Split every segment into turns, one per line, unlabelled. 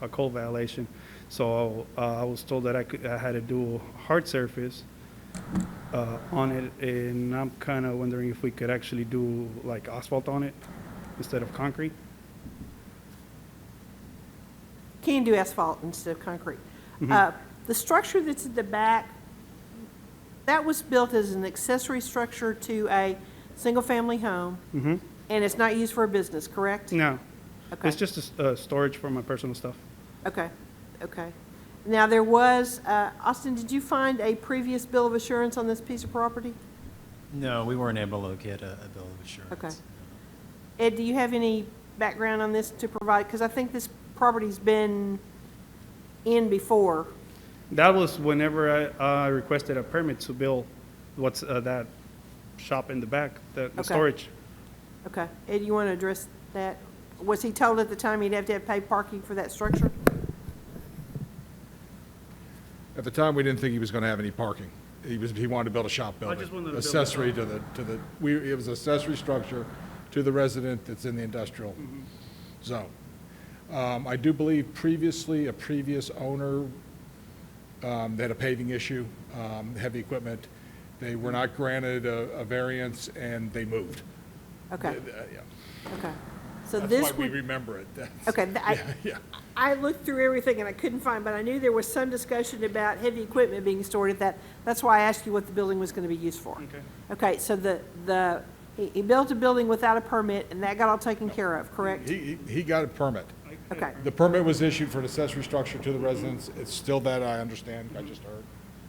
a code violation. So uh, I was told that I could, I had to do a hard surface uh, on it, and I'm kind of wondering if we could actually do like asphalt on it instead of concrete?
Can do asphalt instead of concrete.
Mm-hmm.
Uh, The structure that's at the back, that was built as an accessory structure to a single-family home,
Mm-hmm.
and it's not used for a business, correct?
No,
Okay.
it's just a s- uh, storage for my personal stuff.
Okay, okay. Now, there was, uh, Austin, did you find a previous bill of assurance on this piece of property?
No, we weren't able to locate a, a bill of assurance.
Okay. Ed, do you have any background on this to provide? Because I think this property's been in before.
That was whenever I uh, requested a permit to build what's uh, that shop in the back, the the
Okay.
storage.
Okay, Ed, you want to address that? Was he told at the time he'd have to have paid parking for that structure?
At the time, we didn't think he was going to have any parking. He was, he wanted to build a shop building.
just wanted to build a shop.
Accessory to the, to the, we, it was accessory structure to the resident that's in the industrial
Mm-hmm.
zone. Um, I do believe previously, a previous owner, um, they had a paving issue, um, heavy equipment. They were not granted a, a variance and they moved.
Okay,
Uh, yeah.
okay. So
That's
this
why we
would,
remember it. That's-
okay, th- I,
Yeah.
I looked through everything and I couldn't find, but I knew there was some discussion about heavy equipment being stored at that. That's why I asked you what the building was going to be used for.
Okay.
Okay, so the, the, he, he built a building without a permit and that got all taken care of, correct?
He, he- he got a permit.
Okay,
The permit was issued for an accessory structure to the residence. It's still that, I understand, I just heard.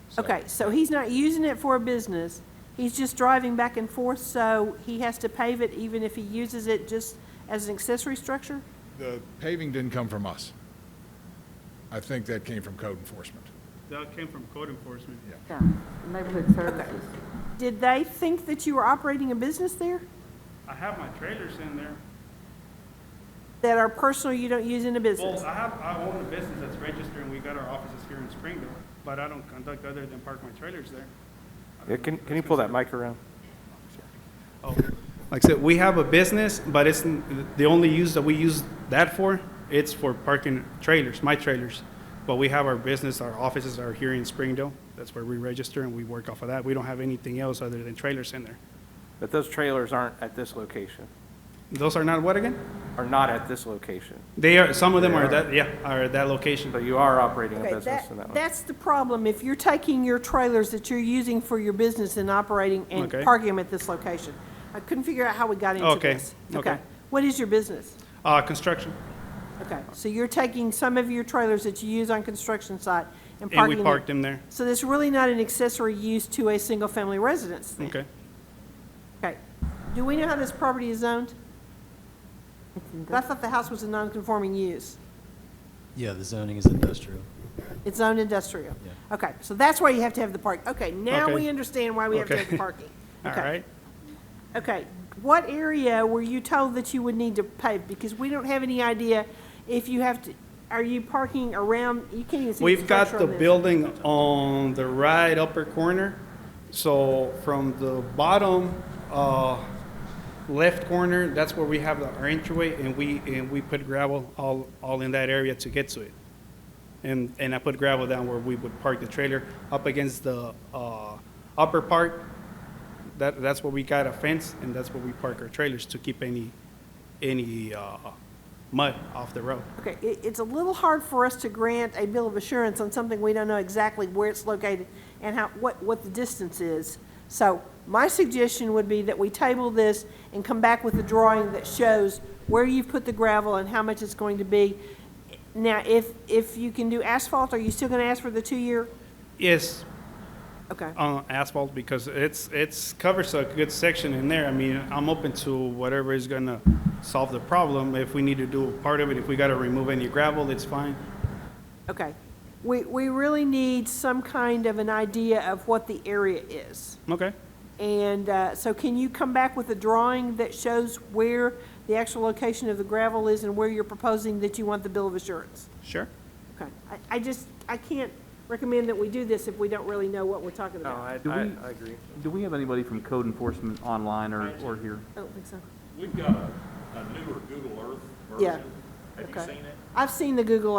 So-
okay, so he's not using it for a business. He's just driving back and forth, so he has to pave it even if he uses it just as an accessory structure?
The paving didn't come from us. I think that came from code enforcement.
That came from code enforcement.
Yeah, neighborhood services.
Did they think that you were operating a business there?
I have my trailers in there.
That are personal, you don't use in a business?
Well, I have, I own a business that's registered, and we got our offices here in Springville, but I don't conduct other than park my trailers there.
Yeah, can, can you pull that mic around?
Oh. Like I said, we have a business, but it's, n- the only use that we use that for, it's for parking trailers, my trailers. But we have our business, our offices are here in Springdale, that's where we register, and we work off of that. We don't have anything else other than trailers in there.
But those trailers aren't at this location,
Those are not what again?
are not at this location.
They are, some of them are that, yeah, are at that location.
So you are operating a
Okay,
business in that
that,
one.
that's the problem. If you're taking your trailers that you're using for your business and operating and
Okay.
parking them at this location. I couldn't figure out how we got into
Okay,
this.
okay.
What is your business?
Uh, construction,
Okay, so you're taking some of your trailers that you use on construction site and
and
parking
we
them.
parked them there,
So that's really not an accessory use to a single-family residence then?
okay?
Okay. Do we know how this property is zoned? I thought the house was a non-conforming use.
Yeah, the zoning is industrial.
It's zoned industrial.
Yeah.
Okay, so that's why you have to have the park. Okay, now
Okay.
we understand why we have to have the
Okay.
parking.
All
Okay.
right,
Okay, what area were you told that you would need to pave? Because we don't have any idea if you have to, are you parking around, you can't even see the
We've got
structure
the
on this.
building on the right upper corner. So from the bottom, uh, left corner, that's where we have our entryway and we, and we put gravel all, all in that area to get to it. And, and I put gravel down where we would park the trailer up against the, uh, upper part. That, that's where we got a fence and that's where we park our trailers to keep any, any, uh, mud off the road.
Okay, it, it's a little hard for us to grant a bill of assurance on something we don't know exactly where it's located and how, what, what the distance is. So my suggestion would be that we table this and come back with a drawing that shows where you've put the gravel and how much it's going to be. Now, if, if you can do asphalt, are you still gonna ask for the two-year?
Yes,
Okay,
on asphalt because it's, it's, covers a good section in there. I mean, I'm open to whatever is gonna solve the problem. If we need to do part of it, if we gotta remove any gravel, it's fine.
okay. We, we really need some kind of an idea of what the area is.
Okay,
And uh, so can you come back with a drawing that shows where the actual location of the gravel is and where you're proposing that you want the bill of assurance?
sure.
Okay. I, I just, I can't recommend that we do this if we don't really know what we're talking
No,
about.
I,
Do
I,
we-
I agree.
Do we have anybody from code enforcement online or, or here?
I don't think so.
We've got a a newer Google Earth
Yeah.
version. Have you
Okay.
seen it?
I've seen the Google